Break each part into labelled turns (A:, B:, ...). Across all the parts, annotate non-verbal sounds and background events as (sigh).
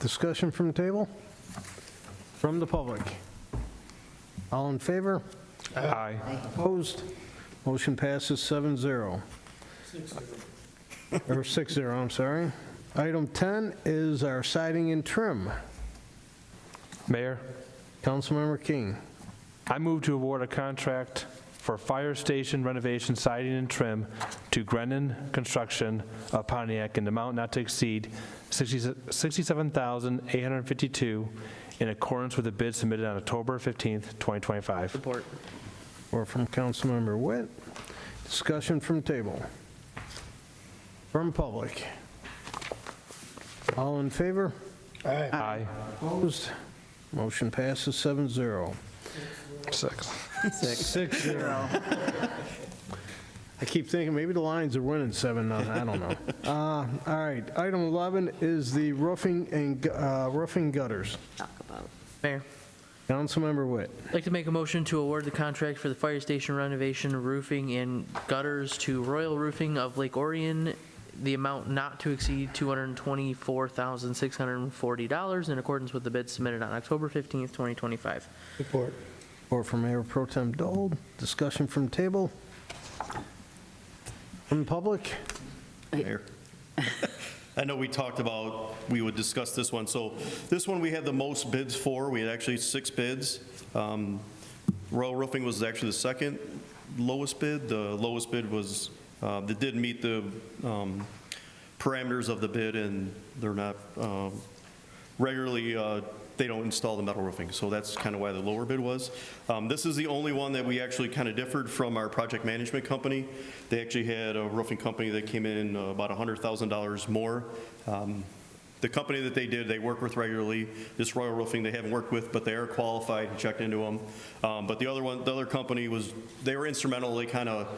A: Discussion from the table? From the public? All in favor?
B: Aye.
A: Opposed? Motion passes 7-0. Or 6-0, I'm sorry. Item 10 is our siding and trim.
B: Mayor,
A: Councilmember King.
B: I move to award a contract for fire station renovation siding and trim to Grennan Construction of Pontiac in the amount not to exceed 60 $67,852 in accordance with the bid submitted on October 15th, 2025.
C: Support.
A: Or from Councilmember Witt. Discussion from table. From public. All in favor?
B: Aye.
A: Opposed? Motion passes 7-0.
B: Six.
C: Six.
A: Six zero. (laughs) I keep thinking, maybe the Lions are winning seven nothing, I don't know. (laughs) Uh, All right, item 11 is the roofing and, gu- uh, roofing gutters.
C: Mayor,
A: Councilmember Witt,
C: I'd like to make a motion to award the contract for the fire station renovation, roofing, and gutters to Royal Roofing of Lake Orion, the amount not to exceed $224,640 in accordance with the bid submitted on October 15th, 2025.
A: or from Mayor Pro Tem Dole, discussion from table. From public,
D: Mayor. (laughs) I know we talked about, we would discuss this one, so this one we had the most bids for, we had actually six bids. Um, Royal Roofing was actually the second lowest bid, the lowest bid was, uh, that did meet the um, parameters of the bid, and they're not, um, regularly, uh, they don't install the metal roofing, so that's kind of why the lower bid was. Um, This is the only one that we actually kind of differed from our project management company. They actually had a roofing company that came in uh, about $100,000 more. Um, The company that they did, they work with regularly, this Royal Roofing, they haven't worked with, but they are qualified, and checked into them. Um, But the other one, the other company was, they were instrumental, they kind of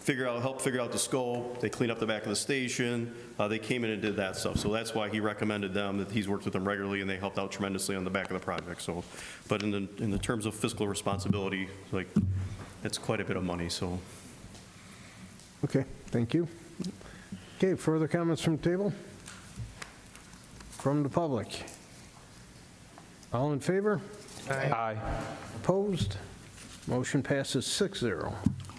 D: figure out, help figure out the scope, they clean up the back of the station, uh, they came in and did that stuff. So that's why he recommended them, that he's worked with them regularly, and they helped out tremendously on the back of the project, so. But in the, in the terms of fiscal responsibility, like, it's quite a bit of money, so.
A: okay, thank you. Okay, further comments from table? From the public. All in favor?
B: Aye.
A: Opposed? Motion passes 6-0.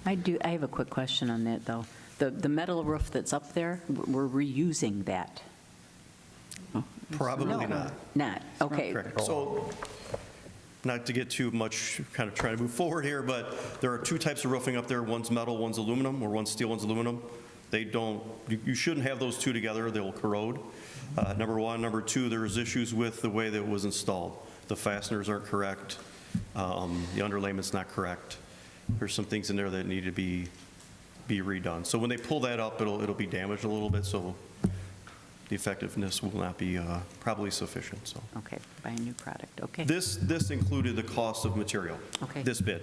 E: I do, I have a quick question on that, though. The, the metal roof that's up there, we're reusing that?
D: Probably not.
E: Not, okay.
D: Correct. So, not to get too much, kind of trying to move forward here, but there are two types of roofing up there. One's metal, one's aluminum, or one's steel, one's aluminum. They don't, you you shouldn't have those two together, they'll corrode. Uh, Number one. Number two, there's issues with the way that it was installed. The fasteners aren't correct, um, the underlayment's not correct. There's some things in there that need to be, be redone. So when they pull that up, it'll, it'll be damaged a little bit, so the effectiveness will not be uh, probably sufficient, so.
E: Okay, buy a new product, okay.
D: This, this included the cost of material.
E: Okay.
D: This bid,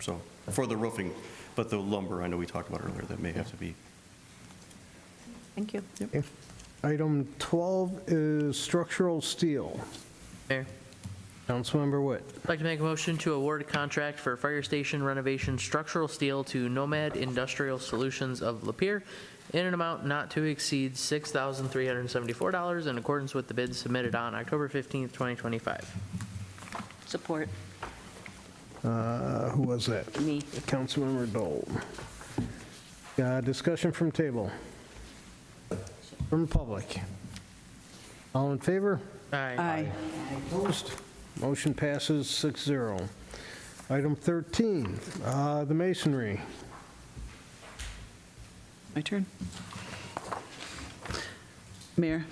D: so, for the roofing, but the lumber, I know we talked about earlier, that may have to be.
E: Thank you.
A: Okay. Item 12 is structural steel.
C: Mayor?
A: Councilmember Witt.
C: I'd like to make a motion to award a contract for fire station renovation structural steel to Nomad Industrial Solutions of Lapeer in an amount not to exceed $6,374 in accordance with the bid submitted on October 15th, 2025.
E: Support,
A: Uh, Who was that?
E: me.
A: Councilmember Dole. Uh, Discussion from table. From public. All in favor?
C: Aye.
A: Opposed? Motion passes 6-0. Item 13, uh, the masonry.
F: My turn. Mayor,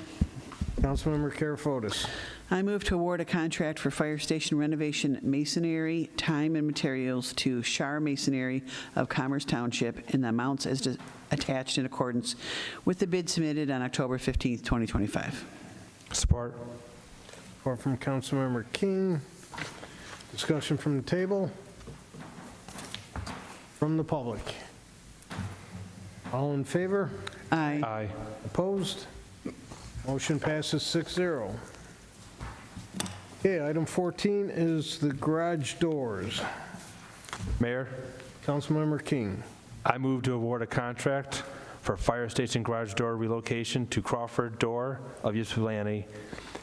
A: Councilmember Karafotis.
F: I move to award a contract for fire station renovation masonry, time and materials to Shar Masonry of Commerce Township in the amounts as dis- attached in accordance with the bid submitted on October 15th, 2025.
B: Support.
A: Or from Councilmember King. Discussion from the table. From the public. All in favor?
F: Aye.
B: Aye.
A: Opposed? Motion passes 6-0. Okay, item 14 is the garage doors.
B: Mayor,
A: Councilmember King.
B: I move to award a contract for fire station garage door relocation to Crawford Door of Ypsilanti